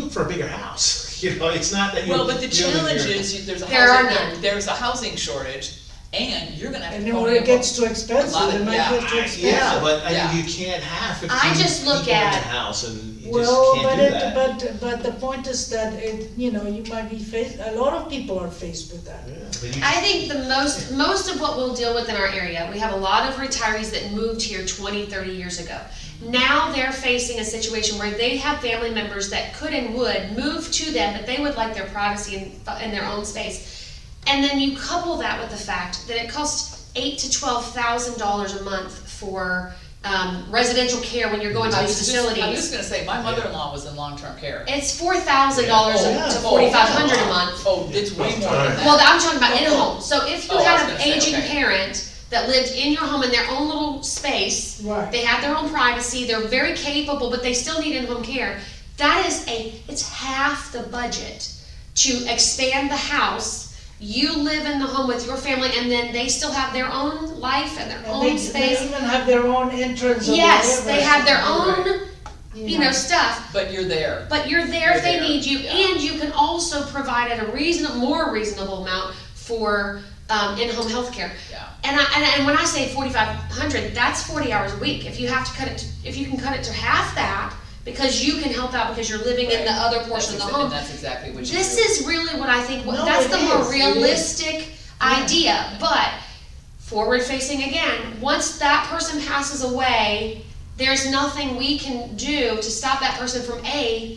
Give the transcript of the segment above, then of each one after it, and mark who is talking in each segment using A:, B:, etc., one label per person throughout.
A: looking for a bigger house, you know, it's not that you.
B: Well, but the
A: you live
B: challenge
A: here.
B: is, you- there's a
C: There are
B: housing,
C: none.
B: there's a housing shortage, and you're gonna have
D: And
B: to
D: then
B: pony
D: when it
B: up
D: gets too
B: A lot
D: expensive,
B: of-
D: it might
B: yeah,
D: get too
A: I-
D: expensive.
A: Yeah, but I
B: Yeah.
A: mean, you can't have
C: I
A: fifteen
C: just
A: people
C: look
A: in a
C: at-
A: house and you
D: Well,
A: just can't
D: but
A: do that.
D: it, but, but the point is that it, you know, you might be faced, a lot of people are faced with that.
A: Yeah, but you-
C: I think the most, most of what we'll deal with in our area, we have a lot of retirees that moved here 20, 30 years ago. Now they're facing a situation where they have family members that could and would move to them, but they would like their privacy and, and their own space. And then you couple that with the fact that it costs eight to twelve thousand dollars a month for, um, residential care when you're going to
B: I
C: these
B: was just- I'm just
C: facilities.
B: gonna say, my mother-in-law was in long-term care.
C: It's four thousand dollars
A: Yeah.
C: to forty-five hundred a month.
B: Oh, it's way more than that.
C: Well, I'm talking about in a
B: Oh,
C: home, so if
B: Oh,
C: you
B: I
C: had
B: was
C: an
B: gonna say,
C: aging
B: okay.
C: parent that lived in your home in their own little space,
D: Right.
C: they have their own privacy, they're very capable, but they still need in-home care, that is a, it's half the budget to expand the house, you live in the home with your family, and then they still have their own life and their
D: And
C: own
D: they, they
C: space.
D: even have their own entrance or whatever.
C: Yes, they have their
B: Right.
C: own, you know, stuff,
B: But you're there.
C: but you're there if they
B: You're there,
C: need you,
B: yeah.
C: and you can also provide at a reasonable, more reasonable amount for um, in-home health care.
B: Yeah.
C: And I, and, and when I say forty-five hundred, that's forty hours a week. If you have to cut it, to- if you can cut it to half that, because you can help out because you're living in the
B: Right.
C: other portion of
B: That's
C: the
B: exa-
C: home.
B: And that's exactly what you do.
C: This is really what I think, what-
D: No,
C: that's
D: it
C: the more
D: is, it is.
C: realistic idea, but forward facing again, once that person passes away, there's nothing we can do to stop that person from A,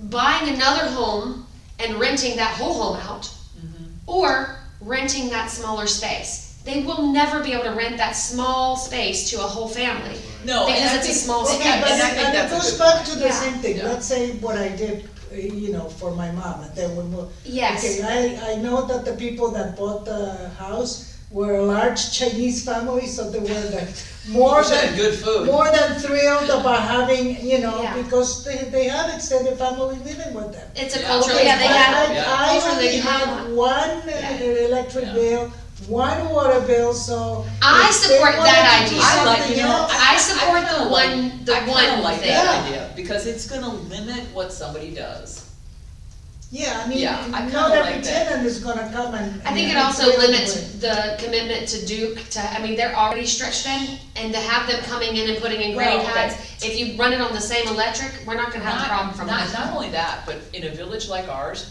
C: buying another home and renting that whole home out, or renting that smaller space. They will never be able to rent that small space to a whole family.
B: No, and
C: because
B: I
C: it's a
B: think-
C: small
B: and I-
C: space.
D: Okay, but
B: and I
D: it,
B: think
D: and it
B: that's a
D: goes
B: good
D: back
B: point.
D: to the
C: Yeah.
D: same thing,
B: Yeah.
D: let's say what I did, uh, you know, for my mom, and then we moved.
C: Yes.
D: Okay, I, I know that the people that bought the house were a large Chinese family, so they were like more
B: You said
D: than,
B: good food.
D: more than thrilled about having, you know,
C: Yeah.
D: because they, they had extended family living with them.
C: It's a
B: Yeah.
C: culture,
B: Okay,
C: yeah, they
D: But
C: have,
B: yeah.
D: I, I
C: culture they
D: only
C: can have.
D: had one uh, electric
B: Yeah.
D: bill, one water bill, so.
C: I
D: if they
C: support
D: wanted
C: that
D: to do
C: idea. I
B: like,
D: something
B: you know,
D: else-
C: I support
B: kinda
C: the
B: like-
C: one- the
B: I kinda
C: one
B: like
C: thing.
B: that idea, because it's gonna limit what somebody does.
D: Yeah, I mean,
B: Yeah, I kinda
D: not every
B: like that.
D: tenant is gonna come and.
C: I think it
D: and
C: also
D: play with
C: limits the commitment to Duke to, I mean, they're already stretched thin, and to have them coming in and putting in
B: Well,
C: grade heights, if you run it on the same electric, we're not gonna have a
B: Not-
C: problem from
B: Not,
C: that.
B: not only that, but in a village like ours,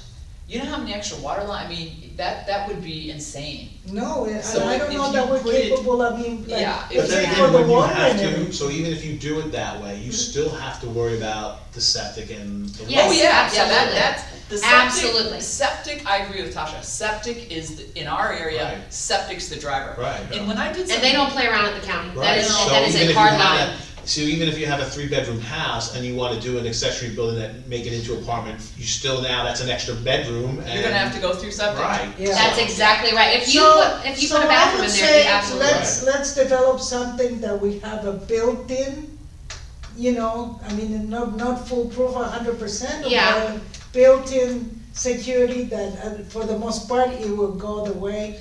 B: you know how many extra water line, I mean, that, that would be insane.
D: No, and
B: So
D: I
B: if-
D: don't
B: if
D: know
B: you
D: that we're
B: put it-
D: capable of being, like,
B: Yeah,
A: But
D: it's
A: then
D: for
A: again,
D: the
A: when you
D: water
A: have
D: and
A: to,
D: everything.
A: so even if you do it that way, you still have to worry about the septic and the.
C: Mm-hmm. Yes,
B: Oh,
A: water.
B: yeah, yeah, that,
C: absolutely.
B: that's, the septic.
C: Absolutely.
B: Septic, I agree with Tasha, septic is, the- in our area,
A: Right.
B: septic's the driver.
A: Right, yeah.
B: And when I did
C: And they
B: something,
C: don't play around at the county, that
A: Right,
C: is,
A: so
C: that is
A: even if
C: a
A: you
C: hard
A: had a-
C: line.
A: So even if you have a three-bedroom house and you wanna do an accessory building that, make it into apartment, you still now, that's an extra bedroom and.
B: you're gonna have to go through septic.
A: Right.
D: Yeah.
C: That's
A: so-
C: exactly right, if you
D: So,
C: put, if you
D: so
C: put a
D: I
C: bathroom
D: would
C: in there,
D: say,
C: you absolutely.
D: let's, let's develop something that we have a built-in, you know, I mean, not, not foolproof a hundred percent.
C: Yeah.
D: but Built-in security that, uh, for the most part, it will go the way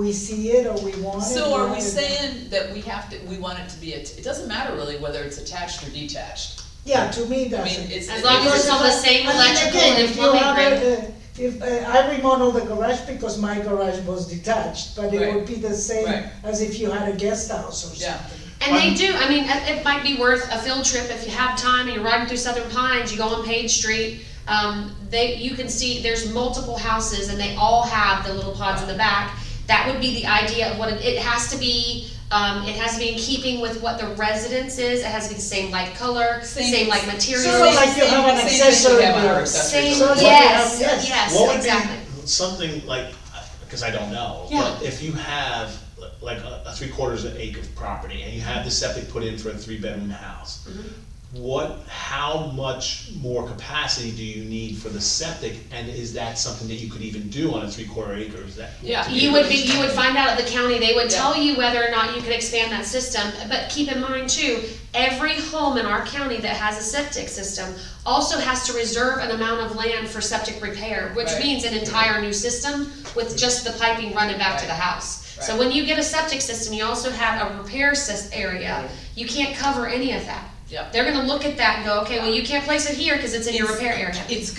D: we see it or we want it.
B: So are we
D: rather-
B: saying that we have to, we want it to be, a- it doesn't matter really whether it's attached or detached.
D: Yeah, to me,
B: I
D: that's.
B: mean, it's.
C: As long as
B: it's-
C: it's on the same
D: I mean,
C: electrical
D: again,
C: and
D: if you
C: plumbing
D: have
C: grid.
D: a- a- If, uh, I remodeled the garage because my garage was detached, but it
B: Right.
D: would be the
B: Right.
D: same as if you had a guest house or something.
B: Yeah.
C: And they do, I mean, it it might be worth a field trip if you have time and you're riding through Southern Pines, you go on Page Street. Um, they, you can see, there's multiple houses and they all have the little pods in the back. That would be the idea of what, it, it has to be, um, it has to be in keeping with what the residence is, it has to be the same light color,
B: Same-
C: same like materials.
D: Sort of like you
B: Same-
D: have an
B: same thing we
D: accessory
B: have on our
D: building.
B: accessory
C: Same,
D: So
B: building.
D: what we
C: yes,
D: have, yes.
C: yes,
A: What would
C: exactly.
A: be something like, because I don't know,
C: Yeah.
A: but if you have like a, a three quarters of an acre of property and you have the septic put in for a three bedroom house,
C: Mm-hmm.
A: what, how much more capacity do you need for the septic? And is that something that you could even do on a three quarter acre? Is that?
B: Yeah.
A: to
C: You would be, you would find out at the county, they would
B: Yeah.
C: tell you whether or not you can expand that system, but keep in mind too, every home in our county that has a septic system also has to reserve an amount of land for septic repair, which
B: Right.
C: means an entire new system with just the piping running back to the
B: Right.
C: house. So
B: Right.
C: when you get a septic system, you also have a repair sys- area, you can't cover any of that.
B: Yeah.
C: They're gonna look at that and go, okay, well, you can't place it here, cause it's in your repair area.
B: It's